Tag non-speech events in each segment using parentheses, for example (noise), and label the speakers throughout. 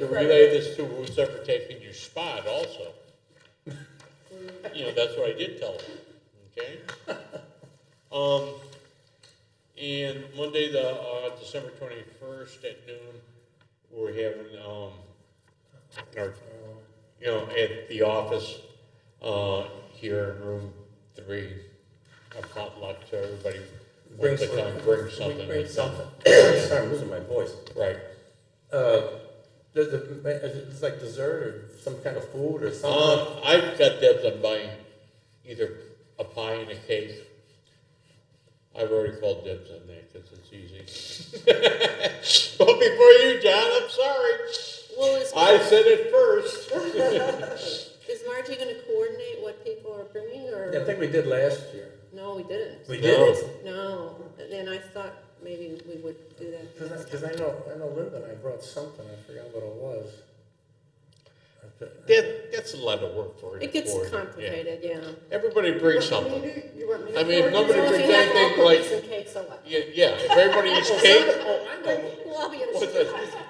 Speaker 1: uh, relay this to Ruth for taking your spot also. You know, that's what I did tell them, okay? Um, and Monday, the, uh, December twenty-first at noon, we're having, um, our, you know, at the office, uh, here in room three, a potluck to everybody.
Speaker 2: Bring
Speaker 1: wants to
Speaker 2: something.
Speaker 1: come, Bring something.
Speaker 2: Bring something. Sorry, I'm losing my voice.
Speaker 1: Right,
Speaker 2: Uh, does it, is it just like dessert or some kind of food or something?
Speaker 1: Um, I've got dibs on buying either a pie and a cake. I've already called dibs on that because it's easy. (laughs) but before you, John, I'm sorry.
Speaker 3: Well, is,
Speaker 1: I said it first.
Speaker 3: is Margie going to coordinate what people are bringing, or
Speaker 2: I think we did last year.
Speaker 3: no, we didn't.
Speaker 2: We
Speaker 1: No.
Speaker 2: did?
Speaker 3: no, and I thought maybe we would do that.
Speaker 2: Cause I, cause I know, I know Linda and I brought something, I forgot what it was. I thi-
Speaker 1: That, that's a lot of work for you.
Speaker 3: It gets
Speaker 1: for it, yeah.
Speaker 3: complicated, yeah.
Speaker 1: Everybody brings something.
Speaker 4: You want me to?
Speaker 1: I mean, if
Speaker 4: pour it?
Speaker 1: nobody
Speaker 3: So if
Speaker 1: brings
Speaker 3: you have
Speaker 1: anything
Speaker 3: all cookies
Speaker 1: like,
Speaker 3: and cakes, so what?
Speaker 1: yeah, yeah, if everybody eats cake,
Speaker 2: (laughs) Oh, I know.
Speaker 1: what's that?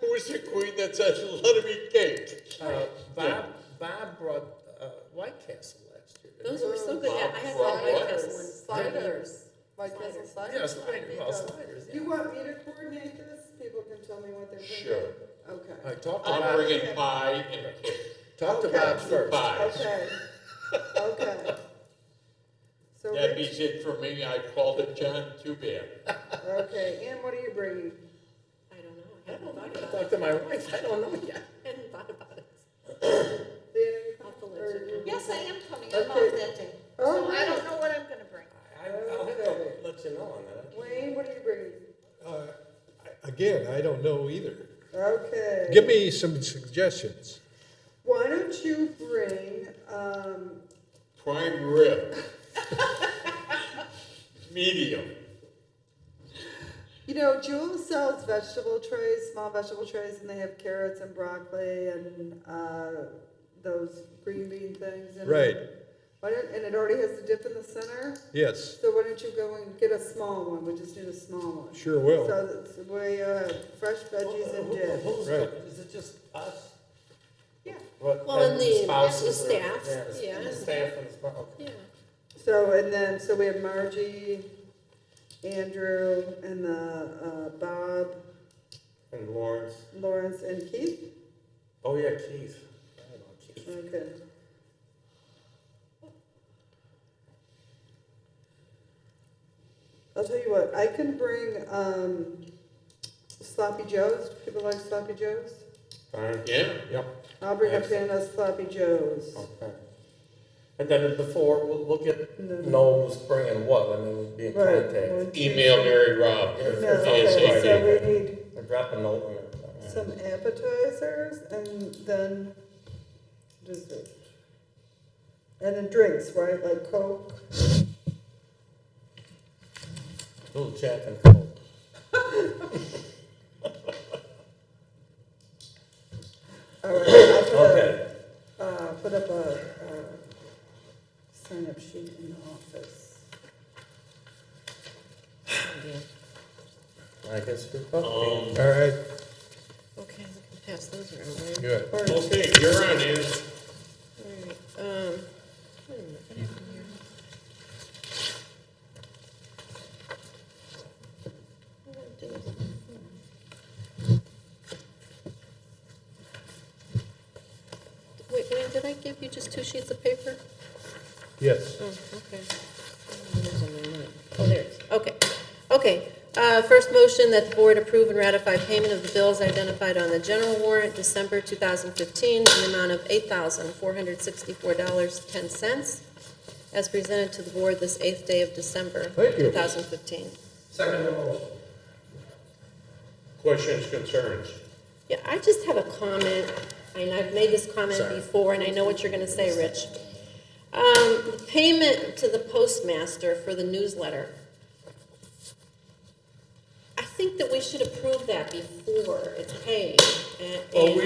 Speaker 1: Who is the queen that says, let him eat cake?
Speaker 2: Uh, Bob, Bob brought, uh, White Castle last year. didn't
Speaker 3: Those were so good. I had
Speaker 1: Bob Ross.
Speaker 3: one White Castle and sliders.
Speaker 4: Like little
Speaker 3: Sliders.
Speaker 2: he?
Speaker 4: sliders?
Speaker 2: Yeah, sliders, well, sliders,
Speaker 4: You
Speaker 2: yeah.
Speaker 4: want me to coordinate this? People can tell me what they're thinking?
Speaker 1: Sure.
Speaker 2: I
Speaker 1: (laughs)
Speaker 4: Okay,
Speaker 2: talked to
Speaker 1: I'm
Speaker 2: Bob,
Speaker 1: bringing pie and a cake.
Speaker 2: talked to
Speaker 4: Okay.
Speaker 2: Bob first.
Speaker 1: Pies.
Speaker 4: okay, okay. So,
Speaker 1: That
Speaker 4: Rich-
Speaker 1: means it for me, I called it John Too bad.
Speaker 4: okay, and what are you bringing?
Speaker 3: I don't know. I
Speaker 2: I
Speaker 3: hadn't
Speaker 2: don't know,
Speaker 3: thought
Speaker 2: I
Speaker 3: about it.
Speaker 2: talked to my wife, I don't know yet.
Speaker 3: Hadn't thought about it.
Speaker 4: Leanna, you
Speaker 3: I'll have to
Speaker 4: coming?
Speaker 3: let
Speaker 4: Or
Speaker 3: you know.
Speaker 4: you-
Speaker 5: Yes, I am coming, I'm off
Speaker 4: Okay.
Speaker 5: that day.
Speaker 4: Oh,
Speaker 5: So I
Speaker 4: nice.
Speaker 5: don't know what I'm gonna bring.
Speaker 2: I, I'll have to let you know on that.
Speaker 4: Wayne, what are you bringing?
Speaker 6: Uh, I- Again, I don't know either.
Speaker 4: Okay.
Speaker 6: Give me some suggestions.
Speaker 4: Why don't you bring, um,
Speaker 1: Prime rib. (laughs) Medium.
Speaker 4: You know, Jewel sells vegetable trays, small vegetable trays, and they have carrots and broccoli and uh, those green bean things. In
Speaker 6: Right.
Speaker 4: It. Why don't, and it already has the dip in the center.
Speaker 6: Yes,
Speaker 4: So why don't you go and get a small one? We just need a small one.
Speaker 6: sure will.
Speaker 4: So that's where you have fresh veggies and dip.
Speaker 2: Who's,
Speaker 6: Right.
Speaker 2: is it just us?
Speaker 4: Yeah.
Speaker 2: What-
Speaker 3: Well, and the-
Speaker 2: spouses
Speaker 3: the
Speaker 2: or-
Speaker 3: staff,
Speaker 2: the-
Speaker 3: yeah.
Speaker 2: the Staff and the spouse, okay.
Speaker 3: Yeah.
Speaker 4: So and then so we have Margie, Andrew, and the uh, Bob,
Speaker 2: And Lawrence,
Speaker 4: Lawrence, and Keith.
Speaker 2: oh yeah, Keith. I don't know, Keith.
Speaker 4: Okay. I'll tell you what, I can bring um, sloppy joes. Do people like sloppy joes?
Speaker 2: Fine,
Speaker 1: Yeah,
Speaker 2: yep,
Speaker 4: I'll bring a pan of sloppy joes.
Speaker 2: okay. And then before, we'll, we'll get,
Speaker 4: And then-
Speaker 2: know who's bringing what, and then we'll be in
Speaker 4: Right,
Speaker 2: contact.
Speaker 4: one, two,
Speaker 1: email Mary Rob.
Speaker 2: Yeah,
Speaker 4: No, okay,
Speaker 1: ASAP.
Speaker 4: so we need
Speaker 2: Or Drop a uh, note. and everything.
Speaker 4: some appetizers and then dessert. And then drinks, right? Like Coke.
Speaker 2: Little chat and Coke.
Speaker 4: All right, I'll put a-
Speaker 2: Okay,
Speaker 4: Uh, put up a, uh sign-up sheet in the office.
Speaker 2: I guess we're
Speaker 1: Um,
Speaker 2: probably.
Speaker 6: All right,
Speaker 3: Okay, I can pass those around. right?
Speaker 6: good.
Speaker 4: Or-
Speaker 1: Okay, you're on, Ann.
Speaker 3: All right, um, wait a minute, what happened here? What did I do with my phone? Wait, Wayne, did I give you just two sheets of paper?
Speaker 6: Yes,
Speaker 3: Oh, okay. Oh, there's only one. Oh, there it is, okay. Okay, uh, first motion that the board approve and ratify payment of the bills identified on the general warrant, December 2015, in the amount of $8,464.10, as presented to the board this eighth day of December.
Speaker 6: Thank you.
Speaker 3: 2015.
Speaker 2: Second motion.
Speaker 1: Questions, concerns?
Speaker 3: Yeah, I just have a comment, and I've made this comment
Speaker 2: Sorry.
Speaker 3: before, and I know what you're gonna say, Rich. Um, the payment to the postmaster for the newsletter. I think that we should approve that before it's paid. and-
Speaker 2: Well, we
Speaker 3: and-